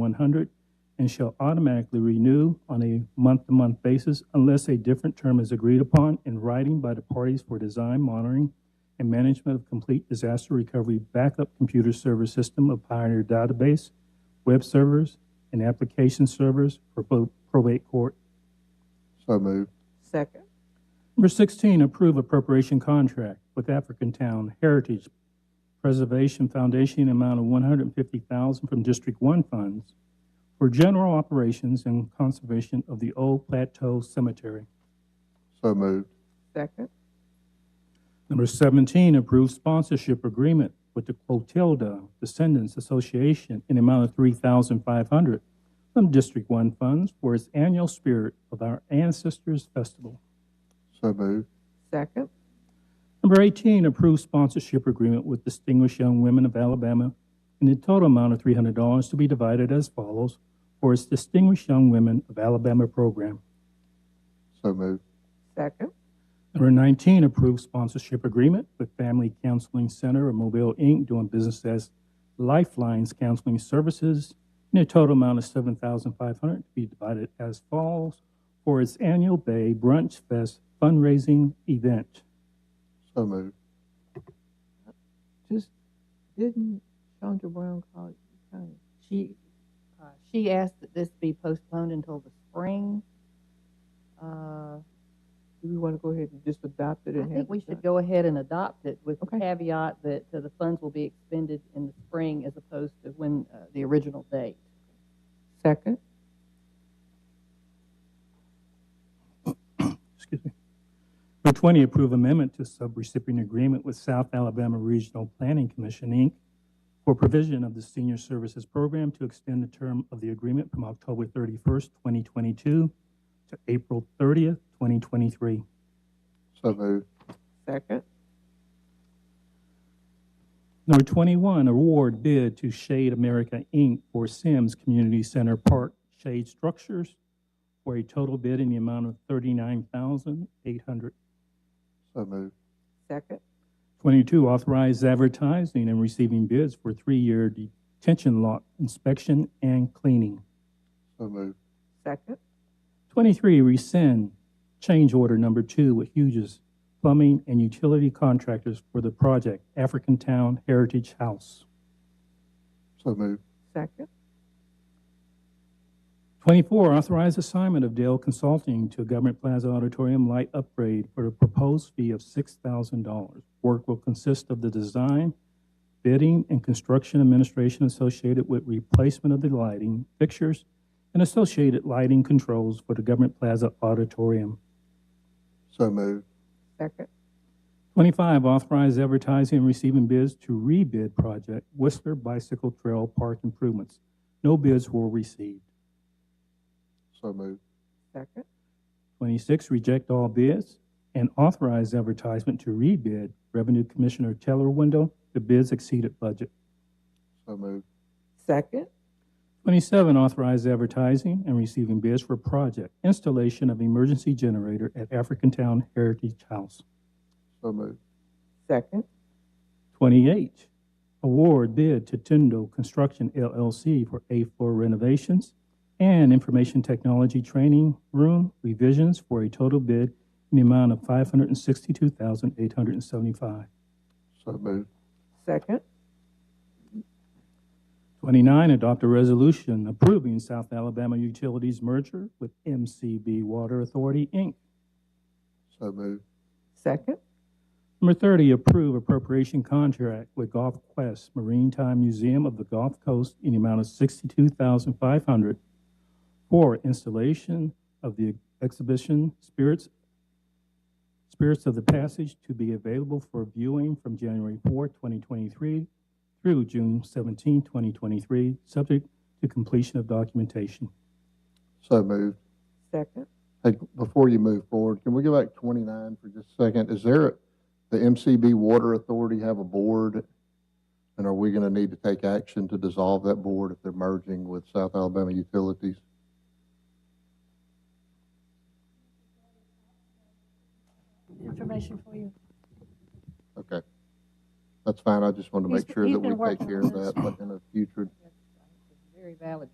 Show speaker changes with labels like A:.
A: 100 and shall automatically renew on a month-to-month basis unless a different term is agreed upon in writing by the parties for design, monitoring, and management of complete disaster recovery backup computer server system of Pioneer Database, web servers, and application servers for both probate court
B: So moved.
C: Second.
A: Number 16, approve appropriation contract with African Town Heritage Preservation Foundation in amount of 150000 from District 1 funds for general operations and conservation of the Old Plateau Cemetery.
B: So moved.
C: Second.
A: Number 17, approve sponsorship agreement with the Quotilda Descendants Association in amount of 3500 from District 1 funds for its annual Spirit of Our Ancestors Festival.
B: So moved.
C: Second.
A: Number 18, approve sponsorship agreement with Distinguished Young Women of Alabama in a total amount of $300 to be divided as follows for its Distinguished Young Women of Alabama program.
B: So moved.
C: Second.
A: Number 19, approve sponsorship agreement with Family Counseling Center of Mobile, Inc., doing business as Lifelines Counseling Services in a total amount of $7,500 to be divided as follows for its annual Bay Brunch Fest fundraising event.
B: So moved.
C: Just, didn't Chandra Brown call you? Tony?
D: She, uh, she asked that this be postponed until the spring. Uh,
C: Do we want to go ahead and just adopt it
D: I
C: and have?
D: think we
C: it
D: should
C: done?
D: go ahead and adopt it with the
C: Okay.
D: caveat that uh, the funds will be expended in the spring as opposed to when, uh, the original date.
C: Second.
A: excuse me. Number 20, approve amendment to subrecipient agreement with South Alabama Regional Planning Commission, Inc. for provision of the senior services program to extend the term of the agreement from October 31st, 2022 to April 30th, 2023.
B: So moved.
C: Second.
A: Number 21, award bid to Shade America, Inc. for Sims Community Center Park shade structures for a total bid in the amount of 39800
B: So moved.
C: Second.
A: 22, authorize advertising and receiving bids for three-year detention lot inspection and cleaning.
B: So moved.
C: Second.
A: 23, rescind change order number two with Hughes Plumbing and Utility Contractors for the project African Town Heritage House.
B: So moved.
C: Second.
A: 24, authorize assignment of Dale Consulting to Government Plaza Auditorium light upgrade for a proposed fee of $6,000. Work will consist of the design, bidding, and construction administration associated with replacement of the lighting fixtures and associated lighting controls for the Government Plaza Auditorium.
B: So moved.
C: Second.
A: 25, authorize advertising and receiving bids to rebid project Whistler Bicycle Trail Park improvements. No bids were received.
B: So moved.
C: Second.
A: 26, reject all bids and authorize advertisement to rebid Revenue Commissioner Teller window. The bids exceeded budget.
B: So moved.
C: Second.
A: 27, authorize advertising and receiving bids for project installation of emergency generator at African Town Heritage House.
B: So moved.
C: Second.
A: 28, award bid to Tendo Construction LLC for A floor renovations and information technology training room revisions for a total bid in the amount of 562875
B: So moved.
C: Second.
A: 29, adopt a resolution approving South Alabama Utilities merger with MCB Water Authority, Inc.
B: So moved.
C: Second.
A: Number 30, approve appropriation contract with Gulf Quest Marine Time Museum of the Gulf Coast in the amount of $62,500 for installation of the exhibition Spirits, Spirits of the Passage to be available for viewing from January 4, 2023 through June 17, 2023, subject to completion of documentation.
B: So moved.
C: Second.
B: Hey, before you move forward, can we go back twenty-nine for just a second? Is there, the MCB Water Authority have a board? And are we gonna need to take action to dissolve that board if they're merging with South Alabama Utilities?
E: information for you.
B: Okay. That's fine. I just wanted to
E: He's-
B: make sure
E: he's
B: that we
E: been
B: take
E: working
B: care
E: on
B: of
E: this.
B: that in the future
D: Very valid